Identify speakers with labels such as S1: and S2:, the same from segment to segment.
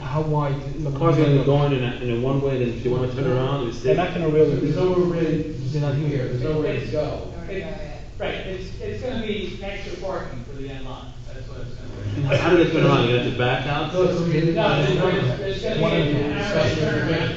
S1: how wide?
S2: The car's gonna go in and, in a one way, then if you wanna turn around, it's
S3: They're
S2: there.
S3: not gonna really,
S4: There's nowhere really,
S1: They're not here.
S4: there's nowhere to go.
S5: It's- Right, it's, it's gonna be extra parking for the end line, that's what it's gonna
S2: How do they turn around, you have to back out?
S4: So it's-
S1: Okay.
S5: be. No, there's, there's gonna
S1: One
S5: be
S1: of
S5: an
S1: the
S5: arrow
S4: discussions we're
S5: turnaround
S4: having.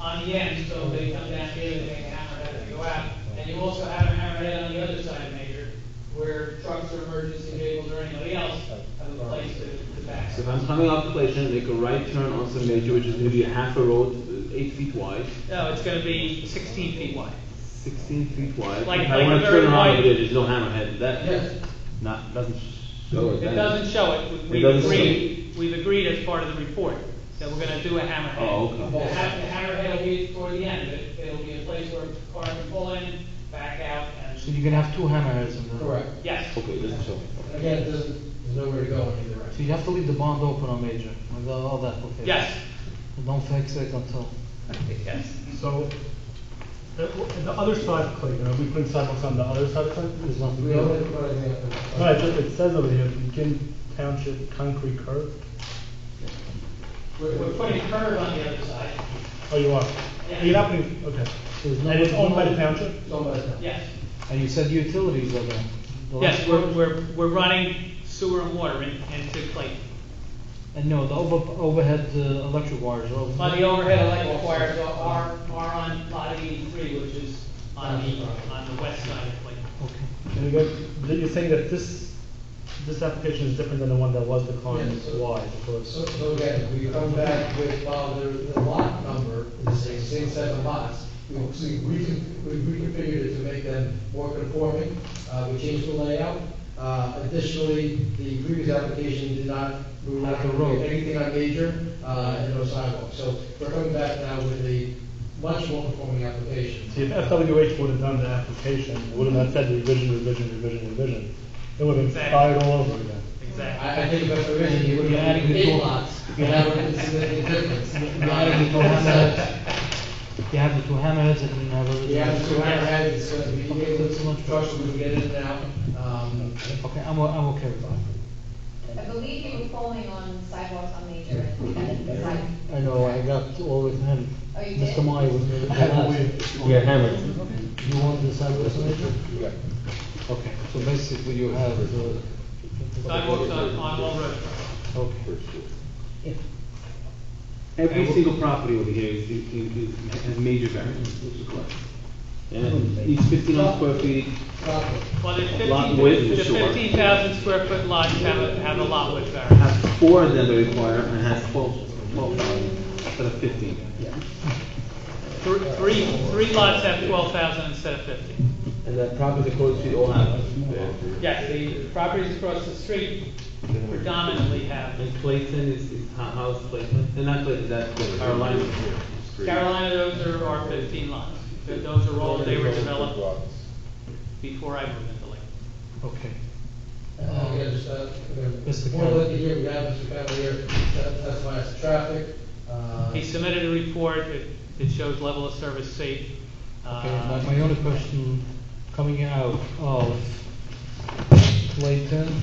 S5: on the end, so they come down here, they make an arrow head to go out. And you also have an arrow head on the other side, Major, where trucks or emergency vehicles or anybody else have a place to, to back.
S2: So if I'm coming off the place and make a right turn on some major, which is maybe a half a road, uh, eight feet wide,
S5: No, it's gonna be sixteen feet wide.
S2: sixteen feet wide.
S5: Like-
S2: If
S5: like
S2: I
S5: a
S2: wanna
S5: very
S2: turn around
S5: wide-
S2: over there, there's no hammerhead, that,
S4: Yes.
S2: not, doesn't show it.
S5: It
S2: then.
S5: doesn't show it,
S2: It
S5: we- we've
S2: doesn't
S5: agreed, we've agreed as part of the report, that we're gonna do a hammerhead.
S2: Oh, okay.
S5: The ha- the hammerhead will be toward the end, it, it'll be a place where the car can pull in, back out,
S1: So
S5: and,
S1: you're gonna have two uh, hammerheads on the.
S4: Correct.
S5: yes.
S2: Okay, it doesn't show it.
S4: And Again, it doesn't, there's nowhere to go on either
S1: So
S4: end.
S1: you have to leave the bond open on major, with all all that, okay?
S5: Yes,
S1: And don't fix it until,
S5: yes.
S6: So, the, the other side of Clayton, are we putting sidewalks on the other side of Clayton? There's nothing.
S4: We only put anything up there.
S6: No, it, it says over here, begin township concrete curb.
S5: We're, we're putting curb on the other side,
S6: Oh, you are?
S5: Yeah.
S6: You're not putting, okay.
S1: there's no.
S6: And it's owned by the township?
S4: Somebody's not.
S5: yes.
S1: And you said utilities are there. The
S5: Yes,
S1: last
S5: we're,
S1: one-
S5: we're, we're running sewer and water in- into Clayton.
S1: And no, the over, overhead, uh, electric wires are over.
S5: On the overhead electric wires are, are are on lot eighty-three, which is on the, on the west side of Clayton.
S1: Okay.
S6: And you got, that you're saying that this, this application is different than the one that was declined,
S4: Yes, sir.
S6: why, of
S4: So,
S6: course?
S4: so again, we come back with, uh, the, the lot number, the same, same set of lots. We, we, we can, we we configured it to make them more conforming, uh, we changed the layout. Uh, additionally, the previous application did not, we were not
S1: Like the
S4: going
S1: road.
S4: anything on major, uh, and no sidewalk. So we're coming back now with a much more conforming application.
S6: See, if FWH would have done the application, it would have not said revision, revision, revision, revision. It would have been fired all over again.
S5: Exactly.
S4: I, I think if I were you, you would be adding the
S1: Eight
S4: lots, and that would be a significant difference.
S1: You have the two hammerheads, you have the two hammerheads and you have everything.
S4: You have to have had, it's gonna be,
S1: Okay, that's so much.
S4: trucks will get in and out, um,
S1: Okay, I'm, o- I'm okay with that.
S7: I believe you were calling on sidewalks on Major and and the side.
S1: I know, I got all with him.
S7: Oh, you did?
S1: Mr. Meyer was the last.
S2: Yeah, hammerhead.
S1: You want the sidewalks major? Yeah. Okay, so basically you have the.
S5: Sidewalks on, on all roads.
S1: Okay.
S2: Every single property over here is, is, is- has major variance, which is correct.
S5: Oh,
S2: And each fifteen hundred square feet,
S4: properly.
S5: Well, the
S2: Lot width
S5: fifteen,
S2: is
S5: the
S2: short.
S5: fifteen thousand square foot lots have a, have a lot width variance.
S2: has four of them that require, and has twelve, twelve thousand instead of fifteen.
S5: Three, three, three lots have twelve thousand instead of fifteen.
S2: And that property across the street all have.
S5: Yes, the properties across the street predominantly have,
S2: And Clayton is, is, how- how's Clayton? And not Clayton, that's Clayton, Carolina.
S5: Carolina, those are, are fifteen lots. Th- Those are all, they were developed before I moved into Lincoln.
S1: Okay.
S4: Uh, we understand,
S1: Mr.
S4: we're, we're looking here, we have Mr. Cavalier, that, that's why it's traffic, uh.
S5: He submitted a report, it, it shows level of service safe.
S1: Okay, my,
S5: Uh,
S1: my only question, coming out of Clayton,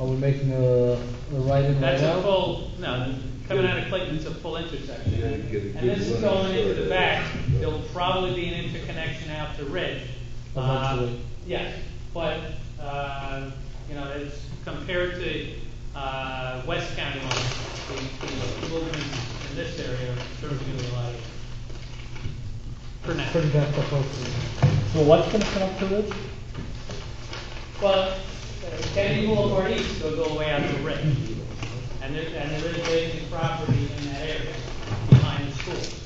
S1: are we making a, a right in, right
S5: That's a
S1: out?
S5: full, no, coming out of Clayton, it's a full intersection. And this is going into the back, there'll probably be an interconnection out to Ridge. Uh,
S1: Eventually.
S5: Yes, but, uh, you know, it's compared to, uh, West County line, the, the movements in this area are certainly gonna be a lot. For now.
S1: Pretty back up, okay.
S6: So what's gonna come up to Ridge?
S5: Well, Kennedy Boulevard East goes all the way out to Ridge. And there, and there is vacant property in that area behind the schools.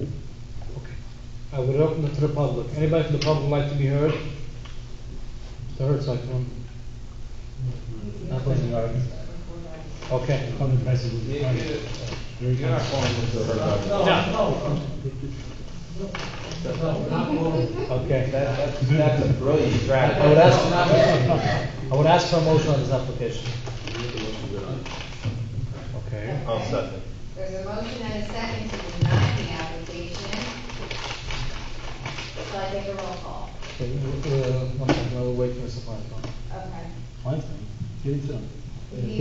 S1: Okay. I will open it to the public. Anybody from the public like to be heard? The Hertz icon. Nothing. Okay.
S6: Public message would be fine.
S4: No,
S5: No.
S4: no. No, not one.
S1: Okay.
S8: That's a brilliant strategy.
S1: I would
S4: No,
S1: ask,
S4: not one.
S1: I would ask for a motion on this application. Okay.
S7: Okay. There's a motion and a second to deny the application. Shall I take a roll call?
S1: Okay, uh, we- we- uh, one second, I'll wait for Mr. Feinstein.
S7: Okay.
S6: Fine, give it to him.
S7: We need